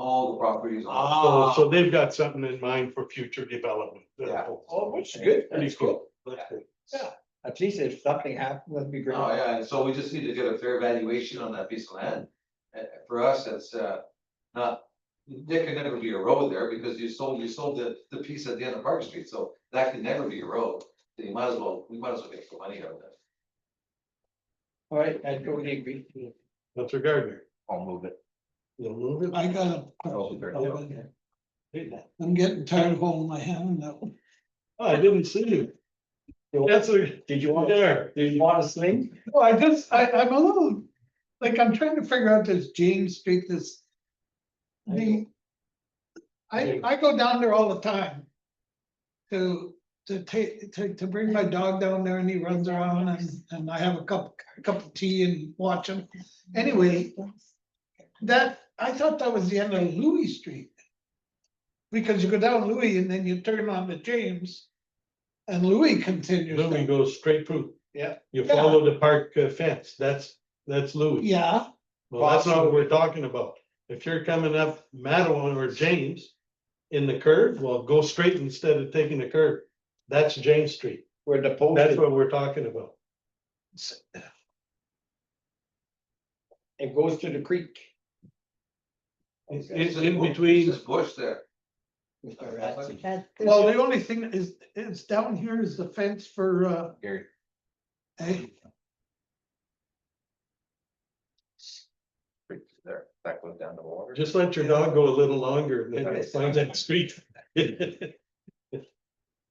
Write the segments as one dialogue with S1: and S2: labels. S1: all the properties.
S2: So,
S1: on-
S2: so they've got something in mind for future development.
S1: Ah. Yeah.
S2: Oh, which is
S3: good.
S2: Pretty
S3: That's
S2: cool.
S1: That's
S2: good.
S3: At least if something happened, that'd be great.
S1: Oh, yeah, and so we just need to get a fair valuation on that piece of land. Uh, for us, that's, uh, not, there can never be a road there because you sold, you sold the, the piece at the end of Park Street, so that can never be a road. So You might as well, we might as well get some money out of that.
S3: All right, I totally agree.
S2: That's your gardener. Ah,
S4: I'll move it.
S2: You'll move it.
S5: I got a
S4: Oh,
S5: question.
S4: very
S5: about
S3: good.
S5: it. I'm getting tired of holding my hand in that one.
S2: Oh, I didn't see you. That's a,
S3: Did you want,
S2: there.
S3: did you want to sling?
S5: Well, I just, I, I'm a little, like, I'm trying to figure out this James Street, this. The. I, I go down there all the time. To, to take, to, to bring my dog down there and he runs around and, and I have a cup, a cup of tea and watch him. Anyway. That, I thought that was the end of Louis Street. Because you go down Louis and then you turn on to James. And Louis continues.
S2: Louis
S5: down.
S2: goes straight through.
S5: Yeah.
S2: You follow the park uh, fence. That's, that's Louis.
S5: Yeah.
S2: Well, that's not what we're talking about. If you're coming up Madeline or James in the curve, well, go straight instead of taking the curve. That's James Street.
S3: Where the post
S2: That's
S3: is,
S2: what we're talking about.
S3: it goes to the creek.
S2: It's
S1: It's
S2: it's
S1: just
S2: in
S1: bu- it's
S2: between,
S1: just Bush there.
S6: That-
S5: Well, the only thing is, is down here is the fence for, uh.
S4: Gary.
S5: eh,
S4: Right There, that goes down to the water.
S2: just let your dog go a little longer and then find that street.
S5: oh, that,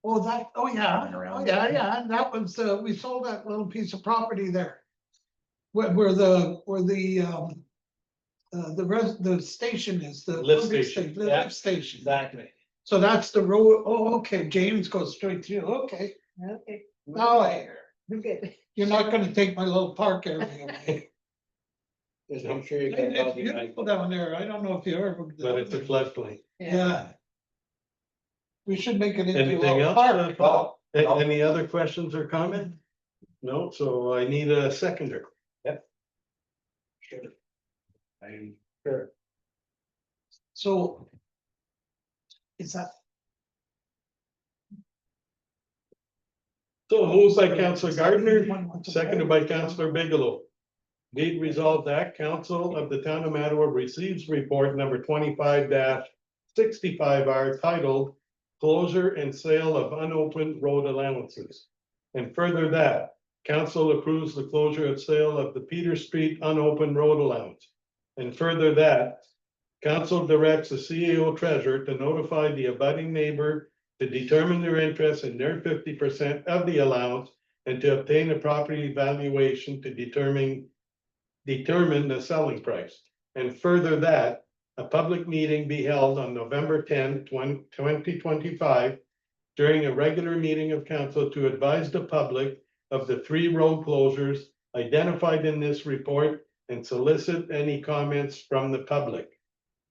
S5: oh, yeah,
S4: Going
S5: oh,
S4: around.
S5: yeah, yeah, and that was, uh, we sold that little piece of property there. Where, where the, where the, um, uh, the res, the station is, the.
S2: Lift
S5: pumping
S2: station,
S5: sta- the
S3: yeah.
S5: Lift station,
S3: Exactly.
S5: so that's the road, oh, okay, James goes straight through, okay,
S6: Okay,
S2: Mm-hmm.
S5: now I, hear.
S6: we're good.
S5: you're not gonna take my little park area away.
S3: Just make sure you get.
S5: It's
S3: healthy, like-
S5: beautiful down there, I don't know if you ever.
S2: But it's a floodplain.
S5: Yeah. We should make it into. a
S2: Anything else?
S5: park.
S2: Uh, Paul? A- Any other questions or comment? No, so I need a seconder.
S3: Sure. I, sure.
S5: So. Is that,
S2: So moved by Counselor Gardner,
S5: One more time.
S2: seconded by Counselor Bigelow. Be it resolved that council of the town of Mattawa receives report number twenty-five sixty-five R titled Closure and Sale of Unopened Road Allowances. And further that, council approves the closure of sale of the Peter Street unopened road allowance. And further that, council directs the CEO treasurer to notify the abutting neighbor to determine their interest in their fifty percent of the allowance and to obtain a property valuation to determine determine the selling price. And further that, a public meeting be held on November 10, 20 2025, during a regular meeting of council to advise the public of the three road closures identified in this report and solicit any comments from the public.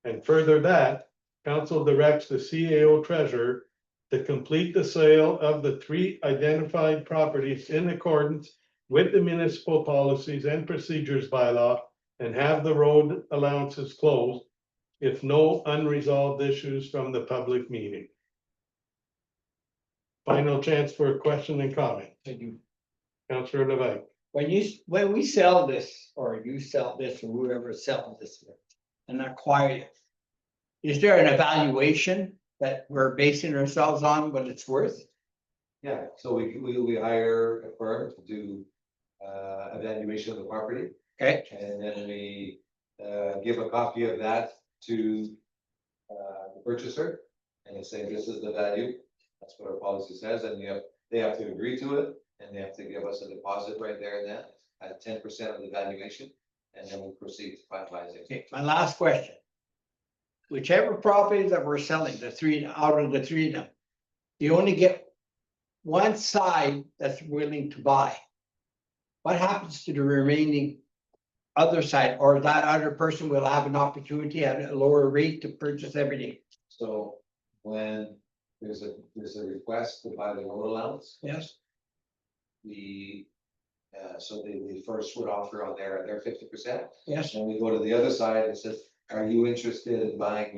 S2: And further that, council directs the CAO treasurer to complete the sale of the three identified properties in accordance with the municipal policies and procedures by law and have the road allowances closed if no unresolved issues from the public meeting. Final chance for a question and comment.
S3: Thank you.
S2: Councilor Levine.
S3: When you, s- when we sell this, or you sell this, or whoever sells this and acquire it. Is there an evaluation that we're basing ourselves on what it's worth?
S1: Yeah, so we, we, we hire a firm to do, uh, evaluation of the property.
S3: Okay,
S1: And then we uh give a copy of that to uh the purchaser and say, this is the value. That's what our policy says, and you have, they have to agree to it, and they have to give us a deposit right there and then at ten percent of the valuation. And then we proceed to finalizing.
S3: okay, my last question. Whichever property that we're selling, the three, out of the three of them, you only get. One side that's willing to buy. What happens to the remaining? Other side, or that other person will have an opportunity at a lower rate to purchase everything?
S1: So when there's a, there's a request to buy the road allowance,
S3: Yes.
S1: the uh, so they, they first would offer on their, their fifty percent.
S3: Yes.
S1: And we go to the other side and says, are you interested in buying